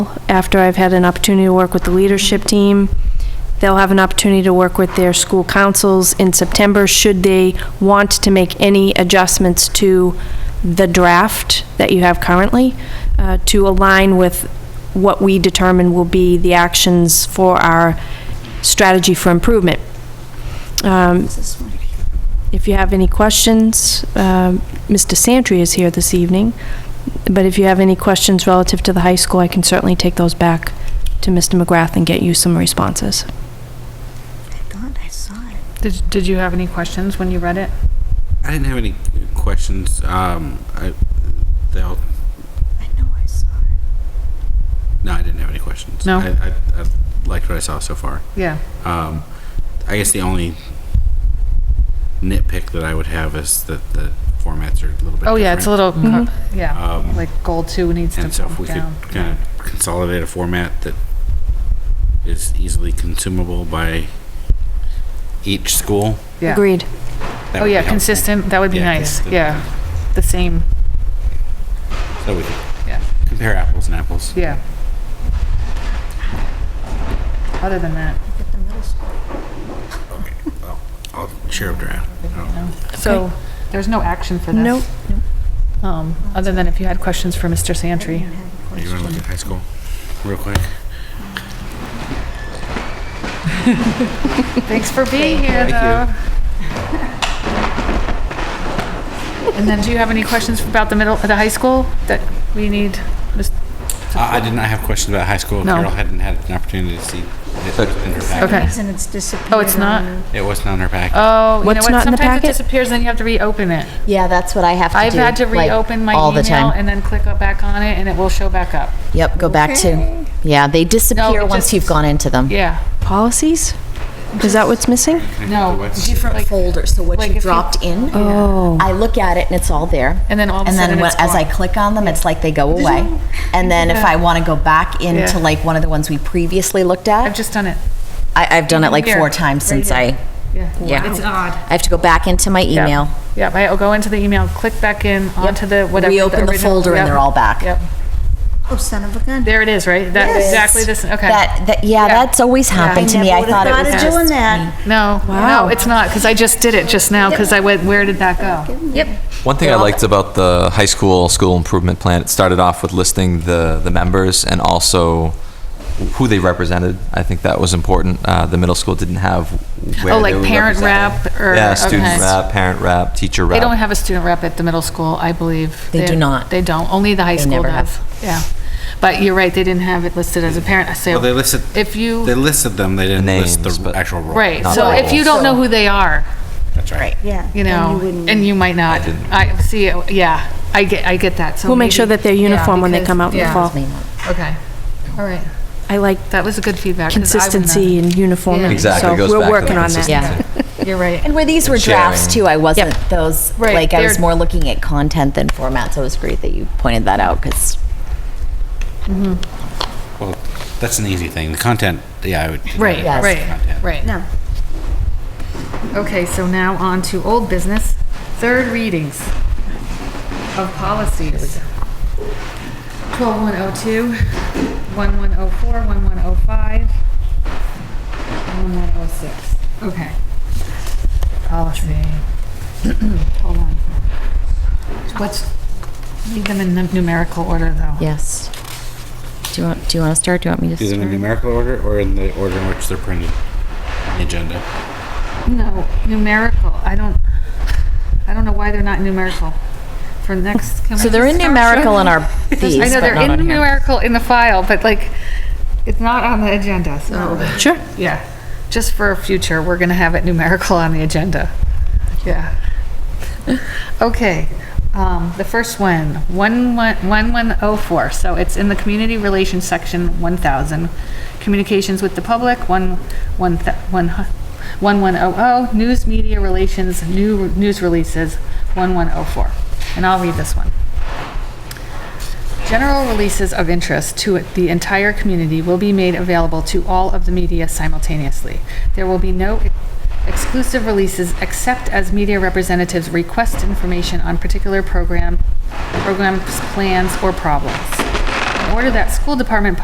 after I've had an opportunity to work with the leadership team. They'll have an opportunity to work with their school councils in September, should they want to make any adjustments to the draft that you have currently, uh, to align with what we determine will be the actions for our strategy for improvement. Um, if you have any questions, um, Mr. Santry is here this evening, but if you have any questions relative to the high school, I can certainly take those back to Mr. McGrath and get you some responses. I thought I saw it. Did, did you have any questions when you read it? I didn't have any questions. Um, I, they all, I know I saw it. no, I didn't have any questions. No? I, I, I liked what I saw so far. Yeah. Um, I guess the only nitpick that I would have is that the formats are a little bit. Oh, yeah, it's a different. little, co- yeah, Um, like goal two needs to And so if come we could down. kind of consolidate a format that is easily consumable by each school. Yeah. Agreed. that Oh, would be yeah, helpful. consistent, that would be Yeah, nice, consistent. yeah. The same, So we could Yeah. compare apples and apples. yeah. Other than that, At the middle school. I'll share a draft. Oh, no. So, there's no action for this? Nope. Um, other than if you had questions for Mr. I didn't Santry. have a You want to look question. at high school real quick? Thanks for being here, though. Thank And then, do you have any questions about the middle, the high school that we need? Mis- I, I did not have questions about high school. No. Carol hadn't had an opportunity to see it in her packet. Okay. Reason it's disappeared. Oh, it's not? on- It wasn't on her packet. Oh, you know what, What's not in the sometimes it packet? disappears, then you have to reopen it. Yeah, that's what I have to I've do. had to like, reopen my all the email time. and then click back on it and it will show back up. Yep, go back to. Yeah, they disappear it once just- you've gone into them. Yeah, Policies? Is that what's missing? no. Different Like- folders. So what like if you you- dropped in, Oh. I look at it and it's all there. And then all of a and sudden then when, it's as I gone. click on them, it's like they go away. And then if I want to go back into Yeah. like one of the ones we previously looked I've at, just done it. I, I've done it like Here. four times Right since here. I. Yeah. Yeah, odd. I have to go back into my email. Yep, I'll go into the email, click back in onto the whatever. Reopen the original- folder and yep, they're all back. Yep, Oh, son of a gun. there it is, right? That, Yes. exactly this, okay. That, that yeah, that's always happened to me. I thought it Thought was of just doing that. No, no, Wow. it's not, because I just did it just now, because I went, where did that go? One thing I liked about the high school school improvement plan, it started off with listing the, the members and also who they represented. I think that was important. Uh, the middle school didn't have where Oh, they like were parent represented. rep or- yeah, student okay. rep, parent rep, teacher rep. They don't have a student rep at the middle school, I believe. They do They're- not. They don't, only the high They school never does. have. Yeah, but you're right, they didn't have it listed as a parent, I say, Well, they listed, if you. they listed them, they didn't list Names, the but- actual role. Right, Not so all. if you don't know who they are, That's right. Yeah. you then know, wouldn't- and you might not, I see, it. yeah, I get, I get that, so. We'll make sure maybe- that they're yeah, uniform when they because- come out in the yeah, fall. Okay, all right, I like that was a good feedback. 'cause I wouldn't have- consistency and uniformity, so Exactly, it goes back we're to working the on that. consistency. You're right, And where these were sharing. drafts too, I wasn't those Right, like I was they're- more looking at content than format. So it was great that you pointed that out because Well, that's an easy thing. The content, yeah, I would. right, Yes. right, right. No. Okay, so now on to old business, third readings of policies. 12102, 1104, 1105, 1106. Okay. Policy. Hold on. What's, read them in num- numerical order, though. yes. Do you want? Do you want to start? Do you want me to Either in start? numerical order or in the order in which they're printed on the agenda. No, numerical. I don't, I don't know why they're not numerical for next. can So we they're just in start numerical showing in our them? these, I know but they're not in on here. numerical in the file, but like, it's not on the agenda, so, Sure. yeah. Just for future, we're gonna have it numerical on the agenda. Yeah. Okay, um, the first one, one one one one oh four. so it's in the community relations section, one thousand. Communications with the public, one, one, thou- one, hu- one one oh oh, news media relations, new, news releases, one one oh four. And I'll read this one. General releases of interest to the entire community will be made available to all of the media simultaneously. There will be no exclusive releases except as media representatives request information on particular program, programs, plans, or problems. In order that school department